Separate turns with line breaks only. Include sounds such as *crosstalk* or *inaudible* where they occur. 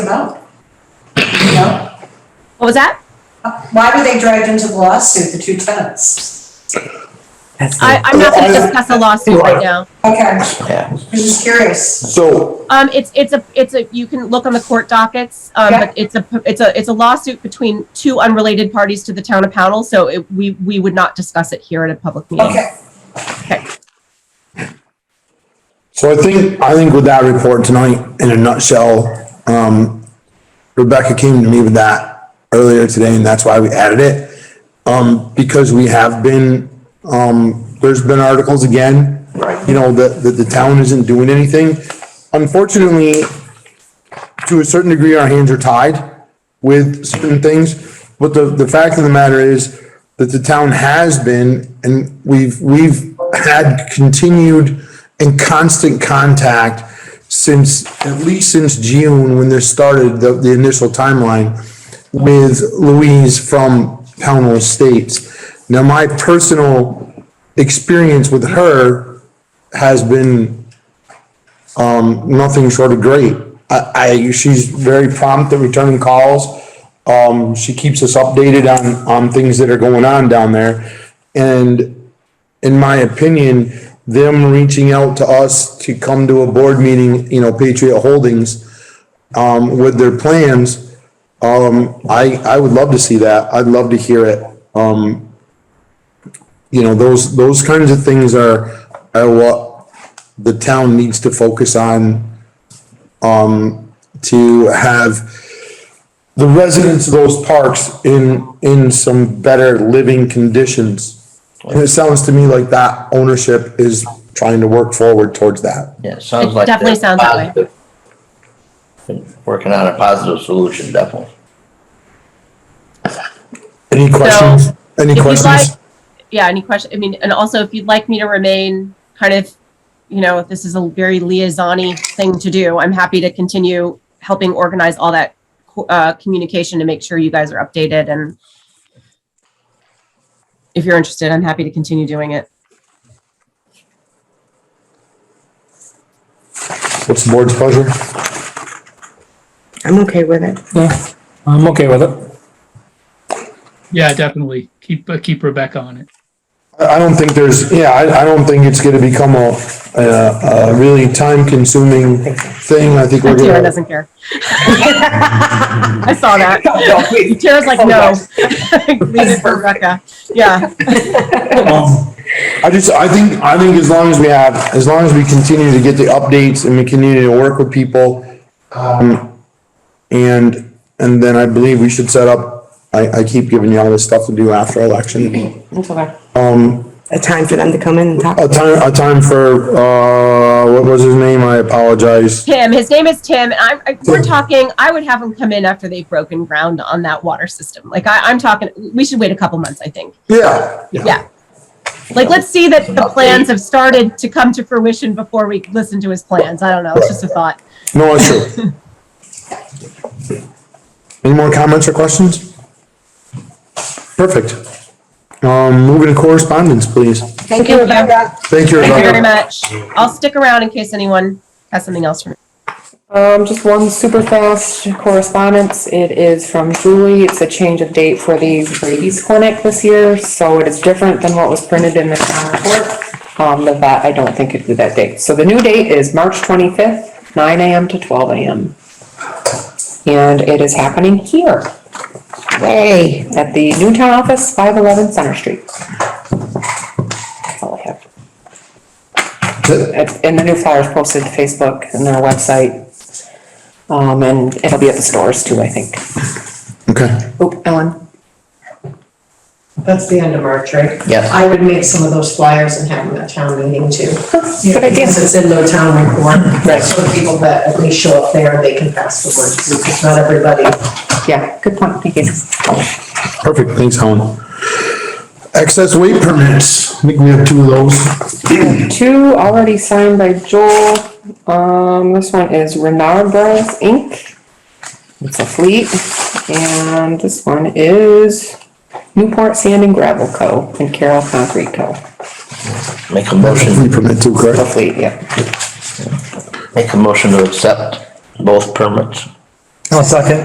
out? No?
What was that?
Why were they dragged into the lawsuit, the two tenants?
I, I'm not going to discuss a lawsuit right now.
Okay,
Yeah.
I'm just curious.
So,
Um, it's, it's a, it's a, you can look on the court dockets, um,
Yeah.
but it's a, it's a, it's a lawsuit between two unrelated parties to the town of Pownell, so it, we, we would not discuss it here at a public meeting.
Okay,
so I think, I think with that report tonight, in a nutshell, um, Rebecca came to me with that earlier today and that's why we added it. Um, because we have been, um, there's been articles again. Right. You know, that, that the town isn't doing anything. Unfortunately, to a certain degree, our hands are tied with certain things. But the, the fact of the matter is that the town has been, and we've, we've had continued and constant contact since, at least since June, when this started, the, the initial timeline with Louise from Pownell Estates. Now, my personal experience with her has been nothing short of great. I, I, she's very prompt at returning calls. Um, she keeps us updated on, on things that are going on down there. And in my opinion, them reaching out to us to come to a board meeting, you know, Patriot Holdings, um, with their plans, um, I, I would love to see that. I'd love to hear it. Um, you know, those, those kinds of things are, are what the town needs to focus on, um, to have the residents of those parks in, in some better living conditions. And it sounds to me like that ownership is trying to work forward towards that.
Yeah, it sounds
It
like.
definitely
they're
sounds that way.
positive. Working on a positive solution, definitely.
Any questions? Any
If you'd like,
questions?
yeah, any question, I mean, and also if you'd like me to remain kind of, you know, if this is a very liaison thing to do, I'm happy to continue helping organize all that, co- uh, communication to make sure you guys are updated and if you're interested, I'm happy to continue doing it.
What's the board's pleasure?
I'm okay with it.
Yeah, I'm okay with it.
Yeah, definitely. Keep, uh, keep Rebecca on it.
I, I don't think there's, yeah, I, I don't think it's gonna become a, a, a really time consuming thing. I think we're gonna.
Tara doesn't care. *laughs* I saw
*laughs*
that. Tara's
Oh,
like, no. *laughs* Leave it for Rebecca. Yeah,
Um, I just, I think, I think as long as we have, as long as we continue to get the updates and we continue to work with people, um, and, and then I believe we should set up, I, I keep giving you all this stuff to do after election.
It's okay. Um. A time for them to come in and talk.
A time, a time for, uh, what was his name? I apologize.
Tim, his name is Tim. and I'm, I, we're talking, I would have him come in after they've broken ground on that water system. Like I, I'm talking, we should wait a couple months, I think.
Yeah,
Yeah. Like, let's see that the plans have started to come to fruition before we listen to his plans. I don't know. It's just a thought.
no issue. Any more comments or questions? Perfect. Um, moving to correspondence, please.
thank you,
Thank you.
Rebecca.
Thank you.
Thank you
Rebecca.
very much. I'll stick around in case anyone has something else for me.
Um, just one super fast correspondence. It is from Julie. It's a change of date for the rabies clinic this year, so it is different than what was printed in the town report. Um, the vet, I don't think it'd be that date. So the new date is March twenty-fifth, nine AM to twelve AM. And it is happening here. Yay, at the new town office, five eleven Center Street. That's all I have. It- And the new flyer's posted to Facebook and their website. Um, and it'll be at the stores too, I think.
Okay.
Oop, Ellen,
That's the end of March, right?
Yes.
I would make some of those flyers and have them at town meeting too.
good idea.
Because it's in the town report.
Right.
So people that at least show up there, they can pass the word, because not everybody
yeah, good point, thank you.
Perfect, thanks, Helen. Excess weight permits, I think we have two of those.
Two already signed by Joel. Um, this one is Renard Bros. Inc. It's a fleet. And this one is Newport Sand and Gravel Co. and Carroll Concrete Co.
Make a motion,
Weight permit too,
The
correct?
fleet, yep.
make a motion to accept both permits.
I'll second.